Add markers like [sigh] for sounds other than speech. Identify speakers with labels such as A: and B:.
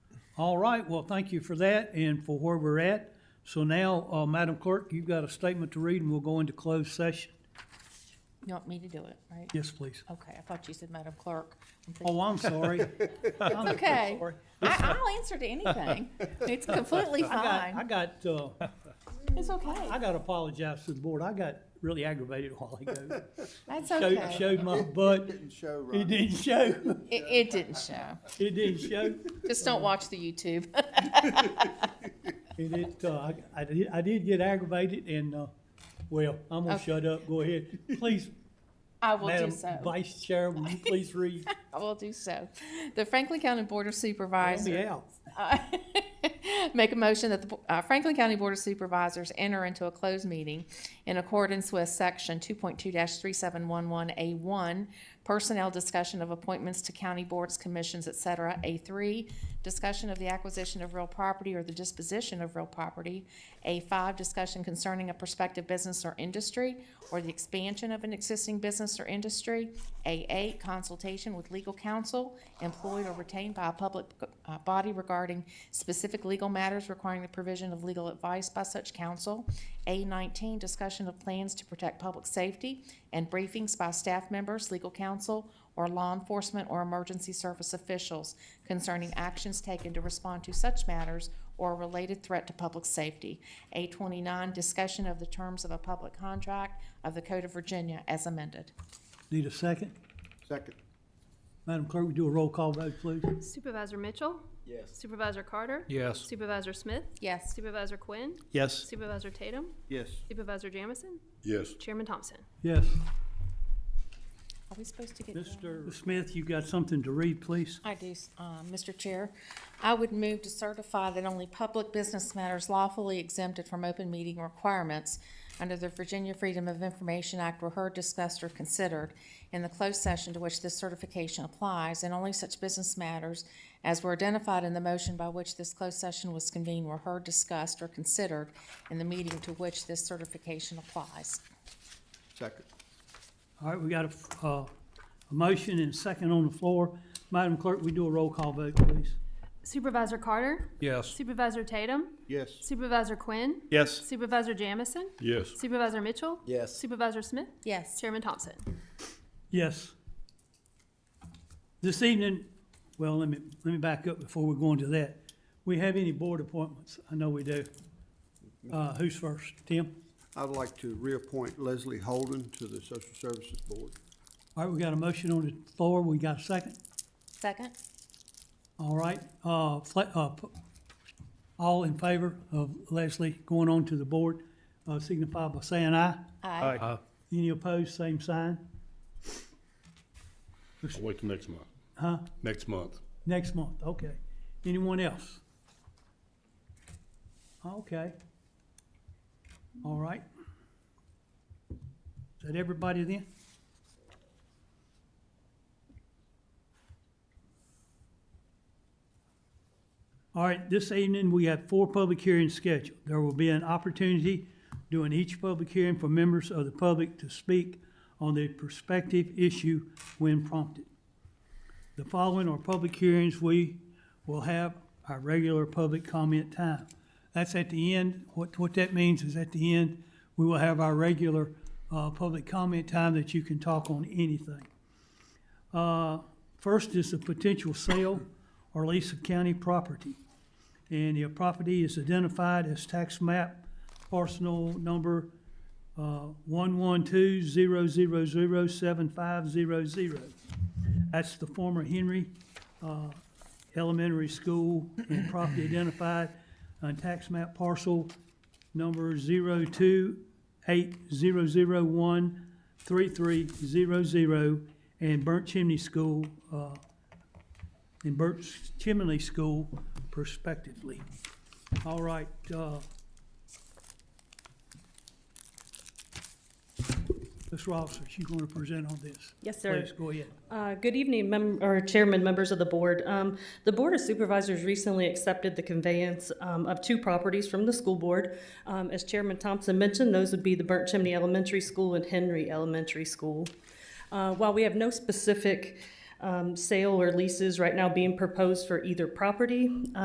A: All right, well, thank you for that and for where we're at. So now, uh, Madam Clerk, you've got a statement to read and we'll go into closed session.
B: You want me to do it, right?
A: Yes, please.
B: Okay, I thought you said Madam Clerk. I'm thinking-
A: Oh, I'm [laughs] sorry. I'm
B: Okay,
A: sorry.
B: I, I'll answer to anything. It's completely
A: I
B: fine.
A: got, I got, uh,
B: It's
A: I
B: okay.
A: gotta apologize to the board. I got really aggravated a while ago.
B: That's
A: Showed,
B: okay.
A: showed my butt.
C: Didn't show,
A: It
C: Ron.
A: didn't show.
B: It, it didn't show.
A: It didn't show.
B: Just don't watch the YouTube. [laughs]
A: And it, uh, I, I did, I did get aggravated and, uh, well, I'm gonna
B: Okay.
A: shut up. Go ahead. Please,
B: I will do
A: Madam
B: so.
A: Vice Chair, will you please read?
B: I will do so. The Franklin County Board of
A: Help
B: Supervisors.
A: me out.
B: Uh, [laughs] Make a motion that the Bo- uh, Franklin County Board of Supervisors enter into a closed meeting in accordance with Section 2.2-3711A1, personnel discussion of appointments to county boards, commissions, et cetera. A3, discussion of the acquisition of real property or the disposition of real property. A5, discussion concerning a prospective business or industry or the expansion of an existing business or industry. A8, consultation with legal counsel employed or retained by a public uh, body regarding specific legal matters requiring the provision of legal advice by such counsel. A19, discussion of plans to protect public safety and briefings by staff members, legal counsel, or law enforcement or emergency service officials concerning actions taken to respond to such matters or a related threat to public safety. A twenty-nine, discussion of the terms of a public contract of the Code of Virginia as amended.
A: Need a second?
C: Second.
A: Madam Clerk, we do a roll call vote, please.
D: Supervisor Mitchell? Yes. Supervisor Carter?
E: Yes.
D: Supervisor Smith?
B: Yes.
D: Supervisor Quinn?
E: Yes.
D: Supervisor Tatum?
C: Yes.
D: Supervisor Jamison?
C: Yes.
D: Chairman Thompson?
A: Yes.
B: Are we supposed to get?
A: Mr. Smith, you got something to read, please?
B: I do, uh, Mr. Chair. I would move to certify that only public business matters lawfully exempted from open meeting requirements under the Virginia Freedom of Information Act were heard, discussed, or considered in the closed session to which this certification applies, and only such business matters as were identified in the motion by which this closed session was convened were heard, discussed, or considered in the meeting to which this certification applies.
C: Second.
A: All right, we got a, uh, a motion and a second on the floor. Madam Clerk, we do a roll call vote, please.
D: Supervisor Carter?
E: Yes.
D: Supervisor Tatum?
C: Yes.
D: Supervisor Quinn?
E: Yes.
D: Supervisor Jamison?
C: Yes.
D: Supervisor Mitchell?
C: Yes.
D: Supervisor Smith?
B: Yes.
D: Chairman Thompson?
A: Yes. This evening, well, let me, let me back up before we go into that. We have any board appointments? I know we do. Uh, who's first? Tim?
C: I'd like to reappoint Leslie Holden to the Social Services Board.
A: All right, we got a motion on the floor. We got a second?
B: Second?
A: All right, uh, fla- uh, p- all in favor of Leslie going on to the board, uh, signify by saying aye.
B: Aye.
E: Aye.
A: Any opposed, same sign.
F: I'll wait till next month.
A: Huh?
F: Next month.
A: Next month, okay. Anyone else? Okay. All right. Is that everybody then? All right, this evening, we have four public hearings scheduled. There will be an opportunity during each public hearing for members of the public to speak on their prospective issue when prompted. The following are public hearings, we will have our regular public comment time. That's at the end, what, what that means is at the end, we will have our regular, uh, public comment time that you can talk on anything. Uh, first is the potential sale or lease of county property. And the property is identified as tax map parcel number, uh, one-one-two-zero-zero-zero-seven-five-zero-zero. That's the former Henry uh, Elementary School and property identified on tax map parcel number 02800013300 and Burnt Chimney School, uh, and Burnt Chimney School prospectively. All right, uh, Ms. Ross, are you going to present on this?
G: Yes, sir.
A: Please, go ahead.
G: Uh, Good evening, mem- or Chairman, members of the board. Um, The Board of Supervisors recently accepted the conveyance um, of two properties from the school board. Um, As Chairman Thompson mentioned, those would be the Burnt Chimney Elementary School and Henry Elementary School. Uh, While we have no specific um, sale or leases right now being proposed for either property,